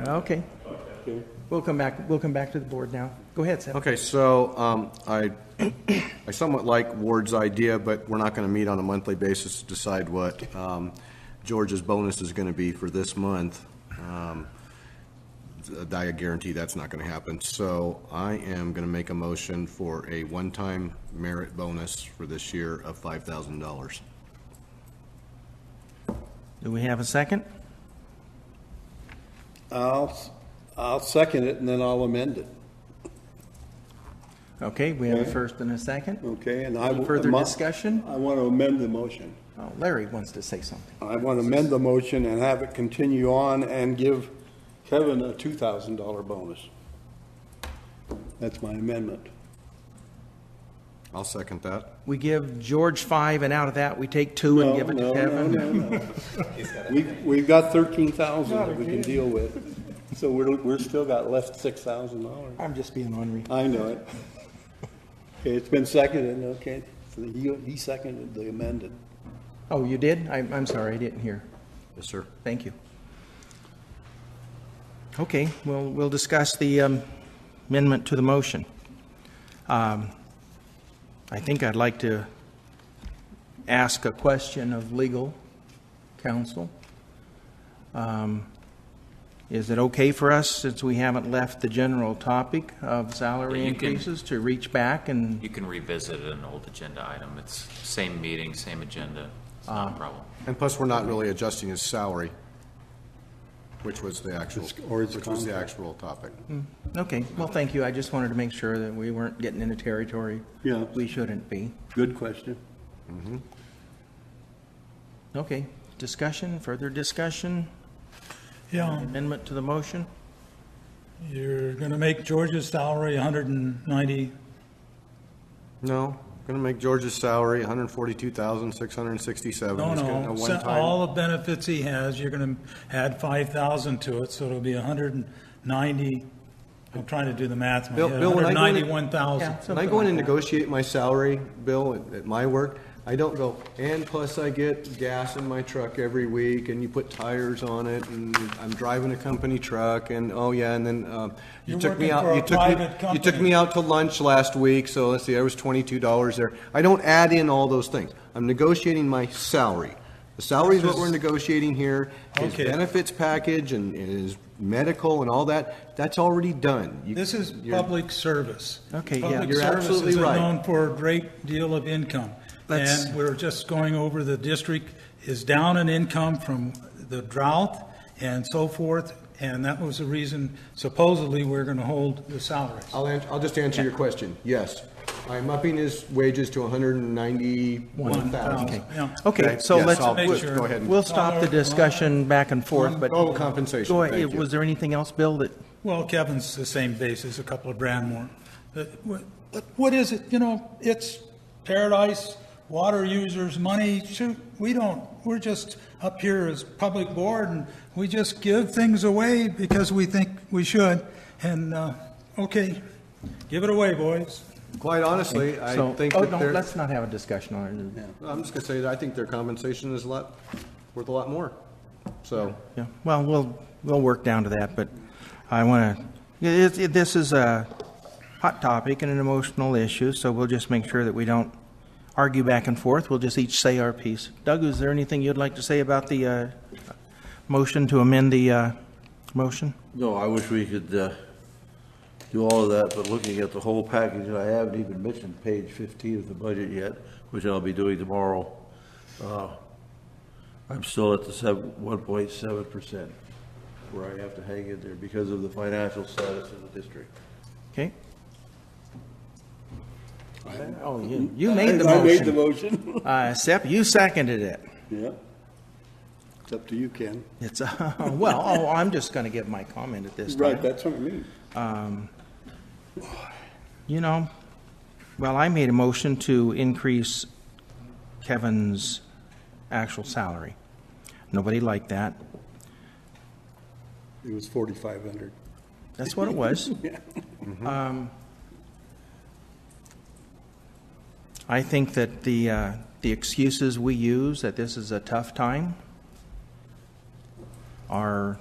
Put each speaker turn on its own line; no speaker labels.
Uh, Okay. We'll come back, we'll come back to the board now. Go ahead, Seth.
Okay, so um, I, I somewhat like Ward's idea, but we're not going to meet on a monthly basis to decide what um, George's bonus is going to be for this month. Um, th- I guarantee that's not going to happen. So I am going to make a motion for a one-time merit bonus for this year of $5,000.
Do we have a second?
I'll, I'll second it and then I'll amend it,
Okay, we have a first and a second.
okay? And I. will-
Further
my-
discussion?
I want to amend the motion.
Oh, Larry wants to say something.
I want to amend the motion and have it continue on and give Kevin a two thousand dollar bonus. That's my amendment.
I'll second that.
We give George five, and out of that, we take two and
No,
give it
no,
to
no,
Kevin.
no, no. We've, we've got thirteen thousand that we can deal with, so we're, we're still got left six thousand dollars.
I'm just being ornery.
I know it. Okay, it's been seconded, okay, so he, he seconded the amended.
Oh, you did? I'm, I'm sorry, I didn't hear.
Yes, sir.
Thank you. Okay, well, we'll discuss the um, amendment to the motion. Um, I think I'd like to ask a question of legal counsel. Um, Is it okay for us, since we haven't left the general topic of salary
You can-
increases, to reach back and,
You can revisit an old agenda item. It's same meeting, same agenda. It's not a problem.
And plus, we're not really adjusting his salary, which was the actual,
It's- or it's
which was the
contract.
actual topic.
okay, well, thank you. I just wanted to make sure that we weren't getting into territory
Yeah.
we shouldn't be.
Good question.
Okay, discussion, further discussion,
Yeah,
amendment to the motion?
you're going to make George's salary 190,
No, gonna make George's salary hundred and forty-two thousand, six hundred and sixty-seven.
no, no, se- all the benefits he has, you're going to add 5,000 to it, so it'll be 190, I'm trying to do the math, in my
Bill-
head,
Bill, when I go in-
Yeah,
191,000.
When I go in and negotiate my salary bill at, at my work, I don't go, and plus I get gas in my truck every week, and you put tires on it, and I'm driving a company truck, and, oh yeah, and then, um, you
You're
took me
working
out,
for a
you took me,
private
you took
company.
me out to lunch last week, so let's see, there was twenty-two dollars there. I don't add in all those things. I'm negotiating my salary. The salary is what we're negotiating here. His
Okay.
benefits package and his medical and all that, that's already done. You-
This is
you're-
public service.
Okay, yeah.
Public
You're
service
absolutely
is
right.
known for a great deal of income,
Let's-
and we're just going over the district is down in income from the drought and so forth, and that was the reason supposedly we're going to hold the salaries.
I'll, ans- I'll just answer your question. Yes, I'm upping his wages to 191,000.
Okay.
Yeah.
Okay, so
Yes,
let's,
I'll-
Make sure.
Go ahead. and-
we'll stop the discussion back and forth, but.
Oh, compensation,
Go
thank
ahead,
you.
was there anything else, Bill, that,
Well, Kevin's the same basis, a couple of grand more. But what- but what is it, you know, it's paradise, water users, money, shoot, we don't, we're just up here as public board and we just give things away because we think we should. And, uh, okay, give it away, boys.
Quite honestly, I
so,
think
oh,
that
no,
their,
let's not have a discussion on it.
I'm just gonna say that I think their compensation is a lot, worth a lot more. So,
Yeah, well, we'll, we'll work down to that, but I want to, this is a hot topic and an emotional issue, so we'll just make sure that we don't argue back and forth. We'll just each say our piece. Doug, is there anything you'd like to say about the uh, motion to amend the uh, motion?
No, I wish we could uh, do all of that, but looking at the whole package, I haven't even mentioned page 15 of the budget yet, which I'll be doing tomorrow. Uh, I'm still at the seven- 1.7%, where I have to hang in there because of the financial status of the district.
Okay. Oh, you, you made the
I made the
motion.
motion.
Uh, Sepp, you seconded it.
Yeah. It's up to you, Ken.
It's, uh, well, oh, I'm just going to give my comment at this
Right,
time.
that's what I mean.
You know, well, I made a motion to increase Kevin's actual salary. Nobody liked that.
It was forty-five hundred. Mm-hmm.
That's what it was. Um, I think that the, uh, the excuses we use, that this is a tough time, are